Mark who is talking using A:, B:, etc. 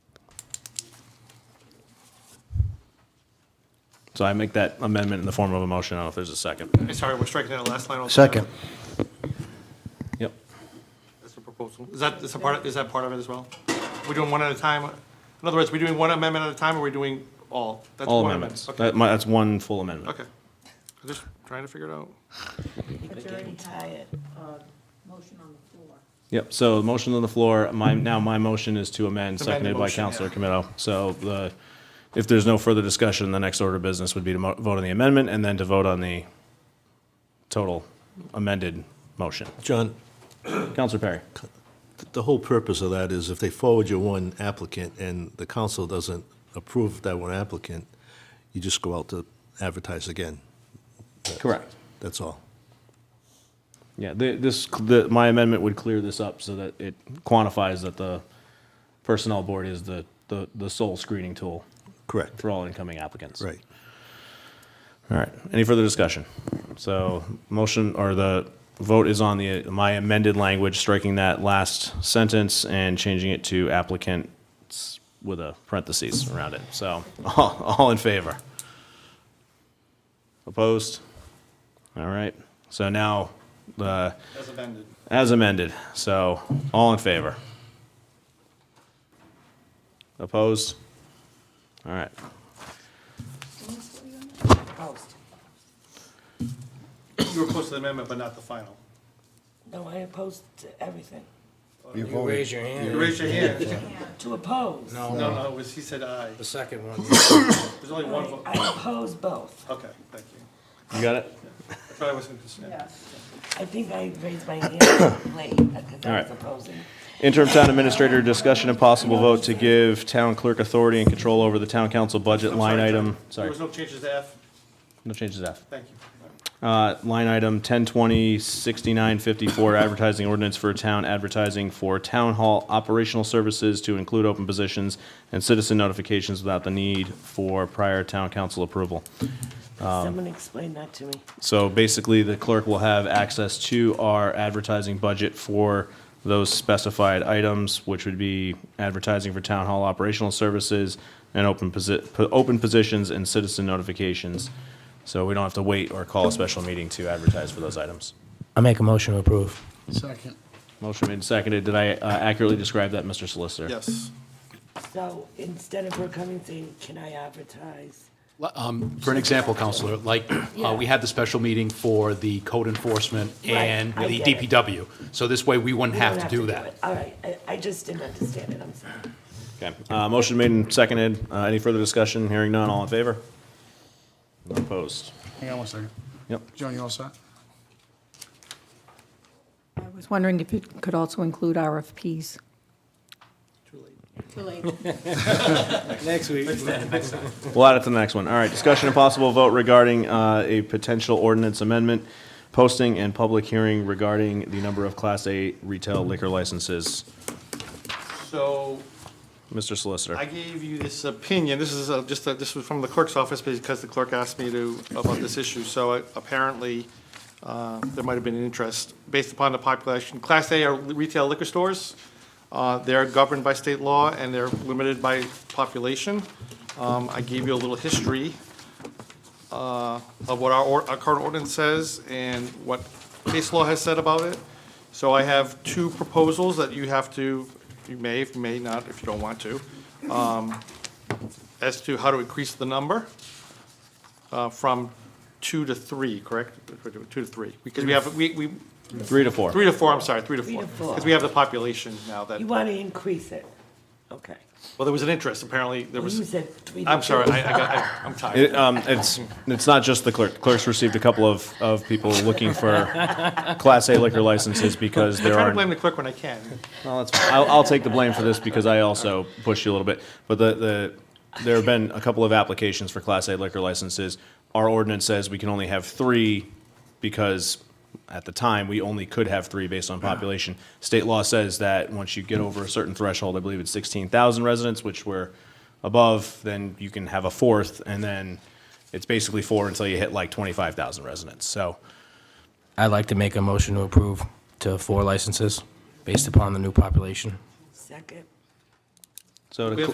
A: So I make that amendment in the form of a motion. I don't know if there's a second.
B: Okay, Sorry, we're striking that last line. altogether.
C: Second.
A: Yep.
B: That's the proposal. Is that, is that part, is that part of it as well? We're doing one at a time? In other words, we're doing one amendment at a time, or we're doing all? That's
A: All
B: one
A: amendments.
B: amendment.
A: That- my- That's one full amendment.
B: Okay. Okay. I'm just trying to figure it out.
D: But you already had a Uh, motion on the floor.
A: Yep, so the motion on the floor, my, now my motion is to amend,
B: To amend the
A: seconded by
B: motion,
A: Counselor
B: yeah.
A: Camillo. So the, if there's no further discussion, the next order of business would be to mo- vote on the amendment and then to vote on the total amended motion.
E: John,
A: Counselor Perry?
E: th- the whole purpose of that is if they forward you one applicant and the council doesn't approve that one applicant, you just go out to advertise again.
A: Correct.
E: That's all.
A: Yeah, the, this, the, my amendment would clear this up so that it quantifies that the Personnel Board is the, the, the sole screening tool
E: Correct.
A: for all incoming applicants.
E: Right.
A: All right. Any further discussion? So motion or the vote is on the, my amended language, striking that last sentence and changing it to applicants with a parentheses around it. So all, all in favor? Opposed? All right. So now, the
B: As amended.
A: as amended. So all in favor? Opposed? All right.
D: Opposed.
B: You were close to the amendment, but not the final.
D: No, I opposed to everything.
C: You
F: You
C: voted.
F: raise your hand.
B: You raised your hand.
D: To oppose.
F: No,
B: No, no, it was, he said aye.
F: the second one.
B: There's only one
D: I
B: vote.
D: I oppose both.
B: Okay, thank you.
A: You got it?
B: I thought I wasn't concerned.
D: I think I raised my hand late because
A: All
D: I
A: right.
D: was opposing.
A: Interim town administrator, discussion and possible vote to give town clerk authority and control over the town council budget
B: I'm
A: line
B: sorry,
A: item,
B: There
A: sorry,
B: was no changes to F.
A: no changes F.
B: Thank you. All right.
A: Uh, line item ten twenty sixty-nine fifty-four, advertising ordinance for town advertising for town hall operational services to include open positions and citizen notifications without the need for prior town council approval.
G: Um,
D: Someone explain that to me.
A: So basically, the clerk will have access to our advertising budget for those specified items, which would be advertising for town hall operational services and open posi- po- open positions and citizen notifications. So we don't have to wait or call a special meeting to advertise for those items.
F: I make a motion to approve.
C: Second.
A: Motion made and seconded. Did I uh, accurately describe that, Mr. Solicitor?
B: Yes.
D: So instead of her coming saying, can I advertise?
G: Li- um, For an example, Counselor, like, uh, we had the special meeting for the code enforcement and
D: Right, I
G: the
D: get it.
G: DPW. So this way, we wouldn't
D: You
G: have
D: don't
G: to do
D: it.
G: that.
D: All right, I, I just didn't understand it, I'm sorry.
A: Okay. Uh, Motion made and seconded. Uh, Any further discussion? Hearing none. All in favor? None Opposed?
C: Hang on one second.
A: Yep.
C: John, you all set?
H: I was wondering if it could also include RFPs.
F: Next week.
A: We'll add it to the next one. All right, discussion and possible vote regarding uh, a potential ordinance amendment, posting and public hearing regarding the number of Class A retail liquor licenses.
B: So
A: Mr.
B: I
A: Solicitor.
B: gave you this opinion, this is uh, just, a- this was from the clerk's office because the clerk asked me to, about this issue. So uh, apparently, uh, there might have been an interest based upon the population. Class A are retail liquor stores. Uh, They're governed by state law and they're limited by population. Um, I gave you a little history uh, of what our, or- our current ordinance says and what case law has said about it. So I have two proposals that you have to, you may, if you may not, if you don't want to, um, as to how to increase the number uh, from two to three, correct? Two to three, because we have, we, we,
A: Three to four.
B: three to four, I'm sorry, three to
D: Three
B: four.
D: to four.
B: Because we have the population now that,
D: You
B: well,
D: want to increase it? Okay.
B: there was an interest, apparently, there
D: You
B: was,
D: said three to
B: I'm sorry,
D: four.
B: I, I got, I- I'm tired.
A: It, um, It's, it's not just the clerk. Clerks received a couple of, of people looking for Class A liquor licenses because
B: I
A: there
B: try to
A: are.
B: blame the clerk when I can.
A: Well, that's fine. I'll, I'll take the blame for this because I also pushed you a little bit. But the, the, there have been a couple of applications for Class A liquor licenses. Our ordinance says we can only have three because at the time, we only could have three based on population. State law says that once you get over a certain threshold, I believe it's sixteen thousand residents, which we're above, then you can have a fourth, and then it's basically four until you hit like twenty-five thousand residents. So,
F: I'd like to make a motion to approve to four licenses based upon the new population.
D: Second.
A: so to
B: We have